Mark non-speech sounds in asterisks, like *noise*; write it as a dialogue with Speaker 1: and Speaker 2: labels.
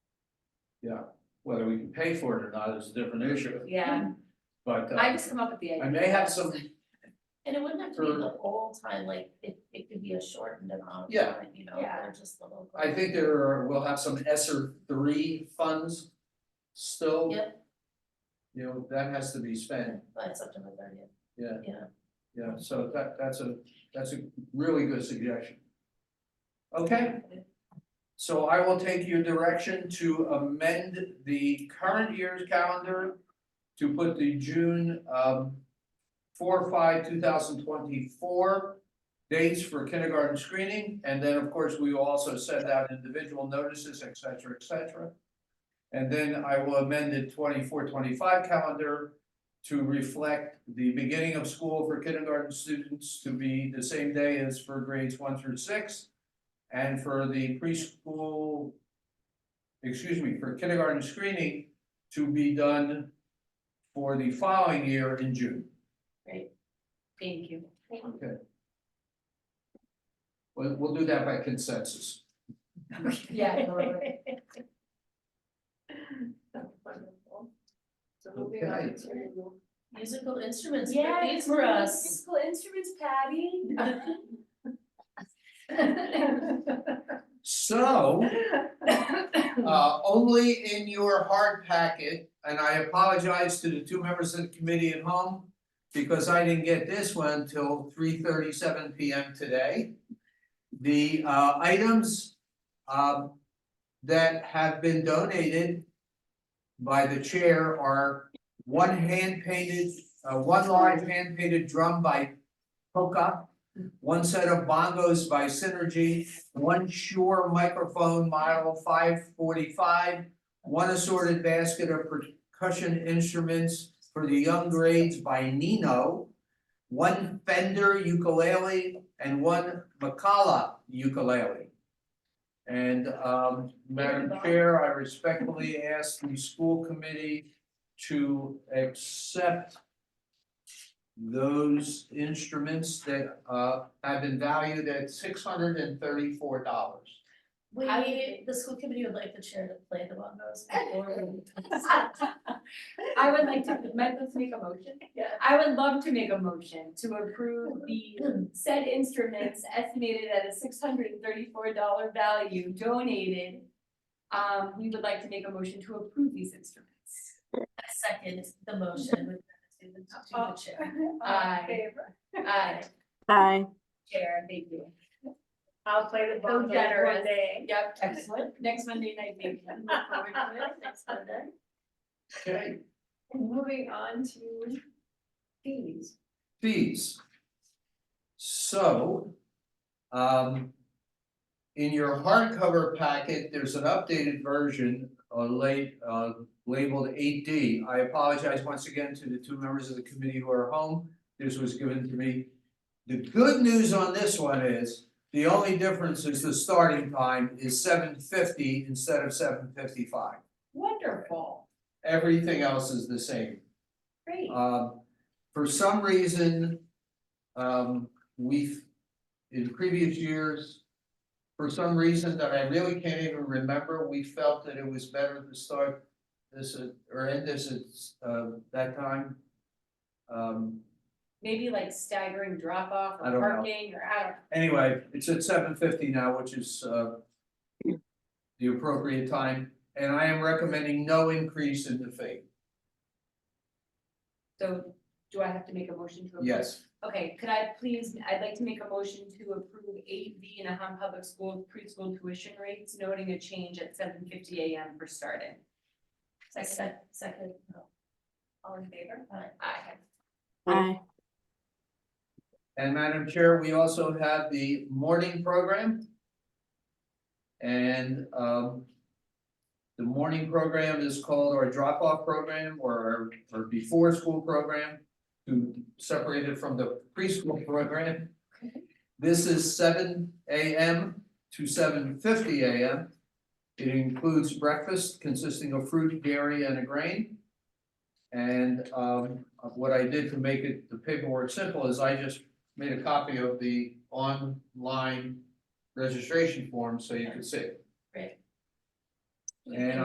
Speaker 1: Whether we can pay for it or not is a different issue,
Speaker 2: yeah,
Speaker 1: but
Speaker 2: I
Speaker 1: uh,
Speaker 2: just come up with the idea.
Speaker 1: I may have some,
Speaker 3: And it wouldn't have to be
Speaker 1: Sure.
Speaker 3: the whole time, like it it could be a shortened amount of
Speaker 1: Yeah.
Speaker 3: time, you know,
Speaker 2: Yeah.
Speaker 3: or just little.
Speaker 1: I think there are, we'll have some ESER three funds still.
Speaker 3: Yep.
Speaker 1: You know, that has to be spent,
Speaker 3: By September thirtieth.
Speaker 1: Yeah.
Speaker 3: Yeah.
Speaker 1: yeah, so that that's a, that's a really good suggestion. Okay, so I will take your direction to amend the current year's calendar to put the June um four, five, two thousand twenty-four dates for kindergarten screening, and then, of course, we will also send out individual notices, et cetera, et cetera. And then I will amend the 24-25 calendar to reflect the beginning of school for kindergarten students to be the same day as for grades one through six. And for the preschool, excuse me, for kindergarten screening to be done for the following year in June.
Speaker 2: Thank you.
Speaker 1: Okay. We'll, we'll do that by consensus.
Speaker 2: *laughs*
Speaker 1: *laughs*
Speaker 2: Yeah, totally.
Speaker 3: Wonderful.
Speaker 4: So moving on
Speaker 1: Okay.
Speaker 4: to,
Speaker 3: Musical instruments,
Speaker 2: Yeah,
Speaker 3: Brittany, for us.
Speaker 2: Musical instruments, Patty. *laughs*
Speaker 1: So. Uh, only in your hard packet, and I apologize to the two members of the committee at home. Because I didn't get this one till three thirty-seven P M today. The uh items um that have been donated. By the chair are one hand painted, uh one large hand painted drum by Hoka. One set of bongos by Synergy, one Shure microphone model five forty-five, one assorted basket of percussion instruments for the young grades by Nino, one Fender ukulele and one Macala ukulele. And um Madam Chair, I respectfully ask the school committee to accept those instruments that uh have been valued at six hundred and thirty-four dollars.
Speaker 3: We, the school committee would like the chair to play the
Speaker 2: *laughs*
Speaker 3: bongos before we.
Speaker 2: I would like to, might let's make a motion.
Speaker 3: Yeah.
Speaker 2: I would love to make a motion to approve the said instruments estimated at a six hundred and thirty-four dollar value donated. Um, we would like to make a motion to approve these instruments.
Speaker 3: I second the motion with gratitude
Speaker 2: Oh.
Speaker 3: to the chair.
Speaker 2: Aye.
Speaker 4: favor.
Speaker 2: Aye,
Speaker 5: Aye.
Speaker 2: Chair, thank you.
Speaker 4: I'll play the
Speaker 2: So
Speaker 4: bongos one
Speaker 2: generous.
Speaker 4: day.
Speaker 2: Yep, *laughs*
Speaker 3: *laughs*
Speaker 2: excellent. Next Monday night, maybe. Look forward to it.
Speaker 3: Uh, Next Monday.
Speaker 1: Okay,
Speaker 4: Moving on to fees.
Speaker 1: fees. So, um. In your hardcover packet, there's an updated version uh late uh labeled eight D. I apologize once again to the two members of the committee who are home. This was given to me. The good news on this one is, the only difference is the starting time is seven fifty instead of seven fifty-five.
Speaker 2: Wonderful,
Speaker 1: Everything else is the same.
Speaker 2: great.
Speaker 1: Um, for some reason, um, we've, in previous years, for some reason that I really can't even remember, we felt that it was better to start this at, or end this at, um, that time. Um,
Speaker 2: Maybe like staggering drop off
Speaker 1: I
Speaker 2: or
Speaker 1: don't know.
Speaker 2: parking or I don't,
Speaker 1: anyway, it's at seven fifty now, which is, uh, the appropriate time, and I am recommending no increase in the fee,
Speaker 2: so do I have to make a motion to approve?
Speaker 1: yes.
Speaker 2: Okay, could I please, I'd like to make a motion to approve eight B in Aham Public Schools preschool tuition rates, noting a change at seven fifty AM for starting.
Speaker 3: Second, second, no. All in favor? Aye.
Speaker 2: Aye.
Speaker 5: Aye.
Speaker 1: And Madam Chair, we also have the morning program. And um. The morning program is called our drop-off program or or before-school program. To separate it from the preschool program. This is seven AM to seven fifty AM. It includes breakfast consisting of fruit, dairy, and a grain. And um what I did to make it the paperwork simple is I just made a copy of the online registration form so you could see. it.
Speaker 3: Great.
Speaker 1: And